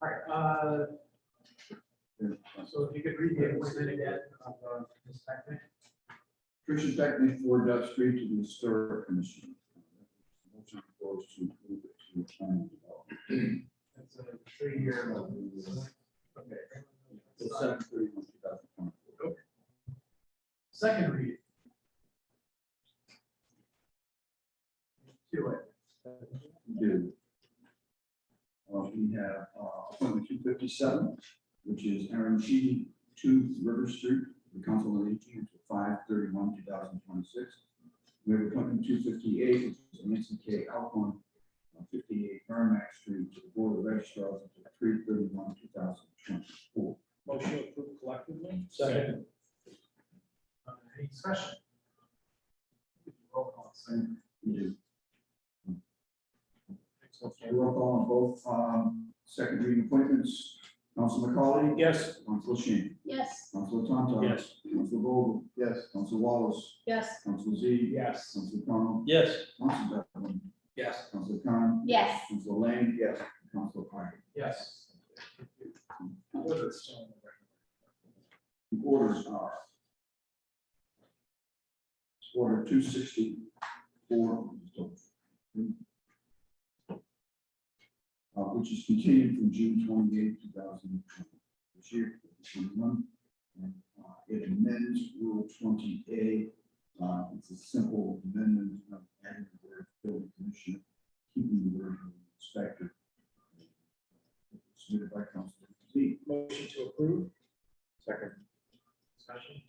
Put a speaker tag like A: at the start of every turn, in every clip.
A: All right, uh, so if you could read the agreement again. uh, this second.
B: Tricia Beckman, four Dove Street to the Historic Commission. Motion goes to approve it to the planning development.
A: That's a three-year. Okay.
B: Till 7/31, 2024.
A: Second read. Do it.
B: We do. Uh, we have, uh, appointment two fifty-seven, which is Aaron Sheedy, two River Street, the Council on Aging, until five thirty-one, two thousand twenty-six. We have appointment two fifty-eight, which is Nancy K. Alcorn, uh, fifty-eight Merrimack Street, to the Board of Registrars, until three thirty-one, two thousand twenty-four.
C: Motion approved collectively?
A: Second. Uh, Any discussion? Roll call, same.
B: We do. Okay, roll call on both, um, second reading appointments. Council McCauley?
C: Yes.
B: Council Shan?
D: Yes.
B: Council Tonto?
C: Yes.
B: Council Vogel?
C: Yes.
B: Council Wallace,
D: Yes.
B: Council Z,
C: Yes.
B: Council Con,
C: Yes.
B: Council Beckman,
C: Yes.
B: Council Con.
D: Yes.
B: Council Lane. Yes. Council Carter.
A: Yes. Orders.
B: The orders are order two sixty-four, Uh, which is continued from June twenty-eighth, two thousand this year, twenty-one. And uh, it amends Rule twenty A. Uh, It's a simple amendment of adding the word building commissioner, keeping the word inspector. Submitted by Council Z.
C: Motion to approve?
B: Second.
A: Discussion.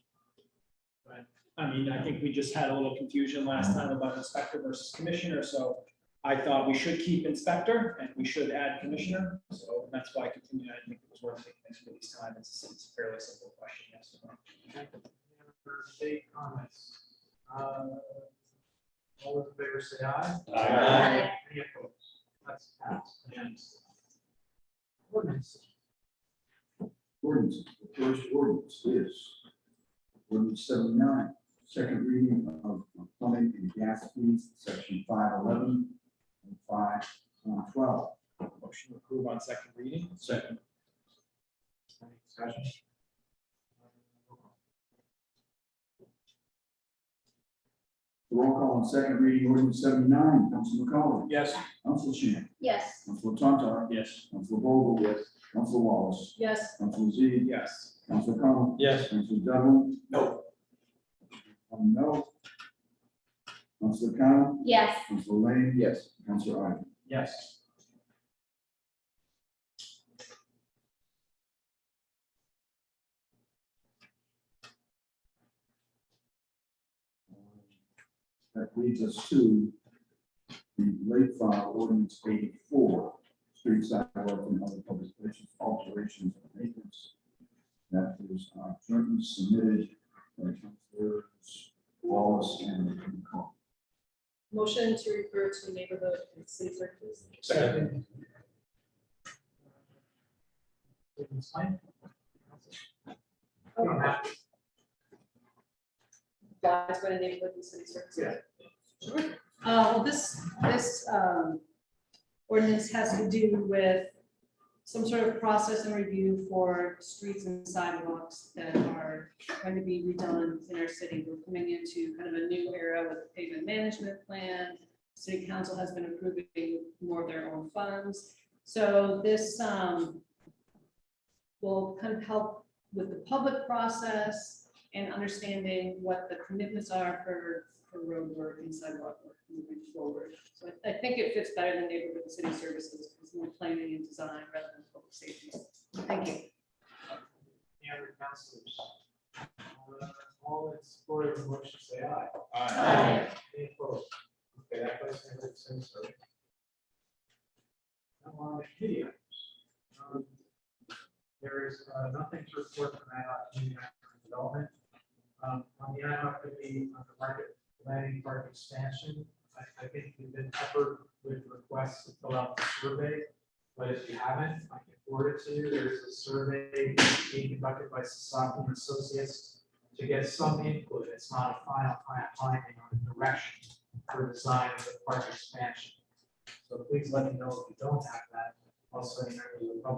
A: But
C: I mean, I think we just had a little confusion last time about inspector versus commissioner, so I thought we should keep inspector and we should add commissioner. So that's why I continued. I think it was worth taking this this time. It's it's a fairly simple question, yes or no?
A: Member state comments. Uh, All those in favor say aye.
D: Aye.
A: Any opposed? That's passed. unanimously. Ordinance.
B: Ordinance, the first ordinance is ordinance seventy-nine, second reading of of plumbing and gas fees, section five eleven and five twelve.
C: Motion to approve on second reading?
B: Second.
A: Any discussion?
B: Roll call on second reading, ordinance seventy-nine, Council McCollum,
C: Yes.
B: Council Shan,
D: Yes.
B: Council Tontar,
C: Yes.
B: Council Vogel. Yes. Council Wallace,
D: Yes.
B: Council Z,
C: Yes.
B: Council Con.
C: Yes.
B: Council Devlin.
C: No.
B: One no. Council Con,
D: Yes.
B: Council Lane. Yes. Council Ivan.
A: Yes.
B: That leads us to the late file ordinance eighty-four, street sidewalk and other public places, alterations and maintenance. That is uh, jointly submitted by Councilors Wallace and McCall.
E: Motion to refer to neighborhood and city clerk, please.
A: Second. Ordinance nine. You don't have to.
E: That's what a neighborhood and city clerk.
A: Yeah.
E: Sure. Uh, well, this, this, um, ordinance has to do with some sort of process and review for streets and sidewalks that are going to be redone in our city. We're coming into kind of a new era with pavement management plan. City council has been approving more of their own funds. So this, um, will kind of help with the public process, and understanding what the commitments are for, for road work and sidewalk work moving forward. So I- I think it fits better than neighborhood and city services, because more planning and design rather than public safety. Thank you.
A: Any other councilors? Uh, All in support of the motion, say aye.
D: Aye.
A: Any opposed? Okay, that place has its sense of. Now on the committee items. Um, There is uh, nothing to report from uh, IHOP Community Economic Development. Um, On the IHOP committee, on the market planning park expansion, I, I think we've been peppered with requests to fill out the survey. But if you haven't, I can forward it to you. There's a survey being conducted by Sasaki and Associates to get some input, it's not a final plan finding on the direction for design of the park expansion. So please let me know if you don't have that, also in the public.